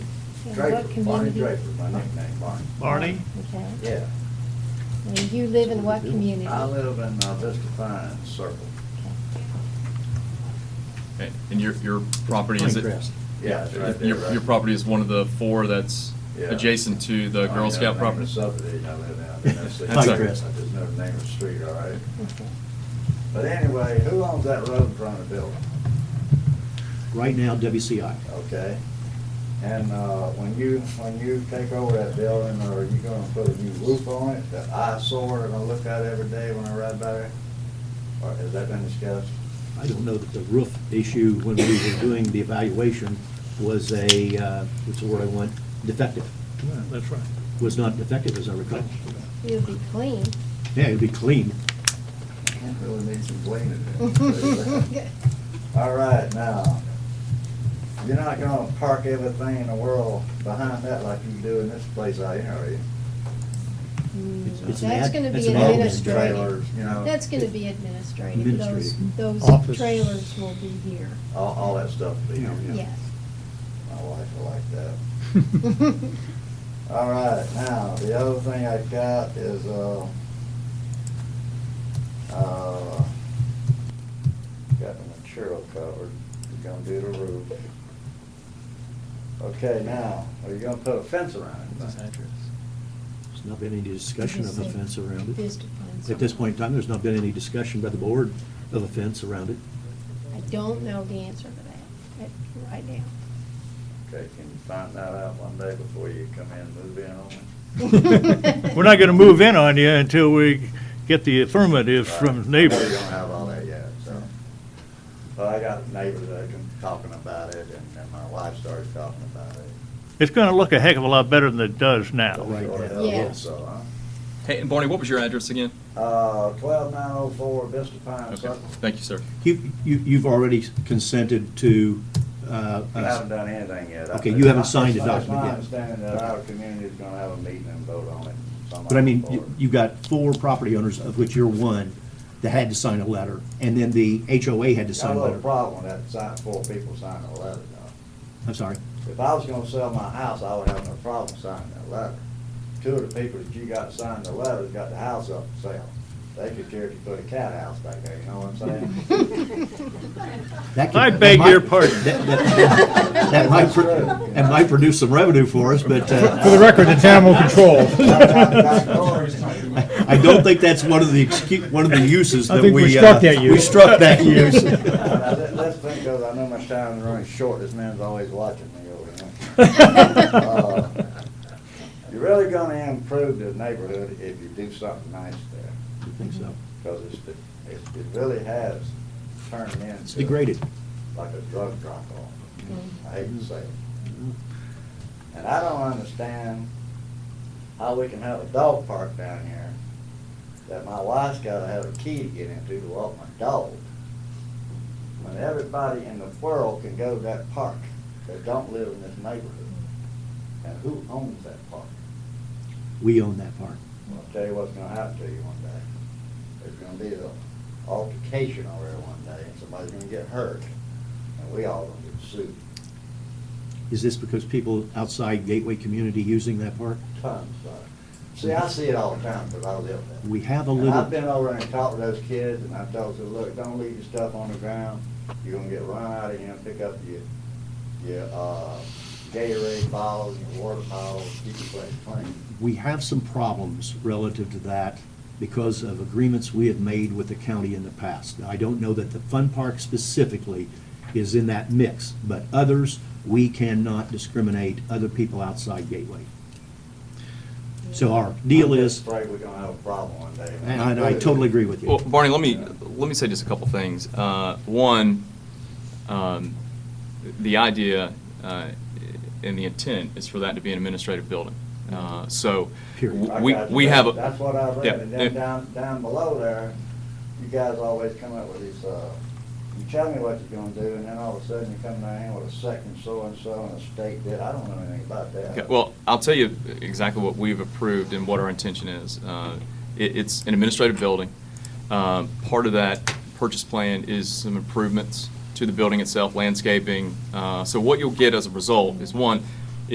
In Draper, what Barney community? Draper, my nickname, Barney. Barney? Okay. Yeah. And you live in what community? I live in uh, Vista Pines Circle. Okay, And your, your property, is it? Pinecrest. Yeah, it's right there, Your, right? your property is one of the four that's Yeah. adjacent to the I Girl ain't Scout never named the property? subdivision I live in. I mean, that's the- That's I okay. just never named the street, all right? Okay. But anyway, who owns that road in front of the building? Right now, WCI. Okay? And uh, when you, when you take over that building, are you gonna put a new roof on it, that eyesore that I look at every day when I ride by there? Or has that been discussed? I don't know that the roof issue, when we were doing the evaluation, was a, uh, what's the word I want, defective. That's right. Was not defective, as I recall. You'll be clean. Yeah, it'd be clean. Can't really need some Mm. cleaning. All right, now, you're not gonna park everything in the world behind that like you do in this place out here, are you? Mm, It's- it's an That's ad- gonna it's be an admin administrative. Trailers, you know. That's gonna be administrative. Those, Administrative. those Office. trailers will be here, All, all that stuff will be, Yeah. here. yes. my wife will like that. All right, now, the other thing I got is, uh, uh, got the material covered, we're gonna do the roof. Okay, now, are you gonna put a fence around it? There's not been any discussion of a fence around it. Vista Pines. At this point in time, there's not been any discussion by the board of a fence around it. I don't know the answer to that, at- right now. Okay, can you find that out one day before you come in and move in on it? We're not gonna move in on you until we get the affirmatives Right. from I know you neighbors. don't have all that yet, so. But I got neighbors that have been talking about it, and, and my wife started talking about it. It's gonna look a heck of a lot better than it does now. Right. Sure yeah. hell Yeah. hope So, huh? Hey, and Barney, what was your address again? Uh, twelve nine oh four Vista Pine Okay, Circle. thank you, sir. You, you, you've already consented to, uh, I us- haven't done anything yet. I Okay, think. you haven't signed the It's my- document It's yet. my understanding that Okay. our community is gonna have a meeting and vote on it. sometime But I mean, before. you- you've got four property owners, of which you're one, that had to sign a letter, and then the HOA had to Got sign a a little letter. problem with that sign, four people signing a letter though. I'm sorry. If I was gonna sell my house, I would have no problem signing that letter. Two of the people that you got signed the letter got the house up for sale. They could care if you put a cat house back there, you know what I'm saying? That could- I that beg might- your pardon. That that- that might, pro- that might produce some revenue for us, but For the uh, record, it's animal control. I don't think that's one of the, excu- one of the uses I that we. think we uh, struck that We use. struck that use. Now, let- Let's think of, I know my time's running short, this man's always watching me over here. Uh, You're really gonna improve the neighborhood if you do something nice there, I think so. because it's, it it really has turned into. It's degraded. Like a drug drop-off, I hate to say it. And I don't understand how we can have a dog park down here that my wife's gotta have a key to get into to walk my dog. When everybody in the world can go to that park that don't live in this neighborhood. And who owns that park? We own that part. I'll tell you what's gonna happen to you one day. There's gonna be an altercation over there one day, and somebody's gonna get hurt, and we all gonna get sued, Is this because people outside Gateway community using that park? tons of it. See, I see it all the time, because I live there. We have a And I've little, been over and talked to those kids, and I told them, look, don't leave your stuff on the ground. You're gonna get run out of here and pick up your, your, uh, Gatorade bottles, your water bottles, keep your place clean. we have some problems relative to that because of agreements we have made with the county in the past. Now, I don't know that the fun park specifically is in that mix, but others, we cannot discriminate other people outside Gateway. So our deal I'm is, just afraid we're gonna have a problem one day. and I- I totally agree with Well, you. Barney, let me, let me say just a couple things. Uh, One, um, the idea uh, and the intent is for that to be an administrative building. Uh, So, Period. I we, got you. we have, a- That's what I Yeah, read, and yeah. then down, down below there, you guys always come up with these, uh, you tell me what you're gonna do, and then all of a sudden you come down here with a second so-and-so and a state bid, I don't know anything about that. Okay, Well, I'll tell you exactly what we've approved and what our intention is. Uh, it- It's an administrative building. Um, Part of that purchase plan is some improvements to the building itself, landscaping. Uh, So what you'll get as a result is, one,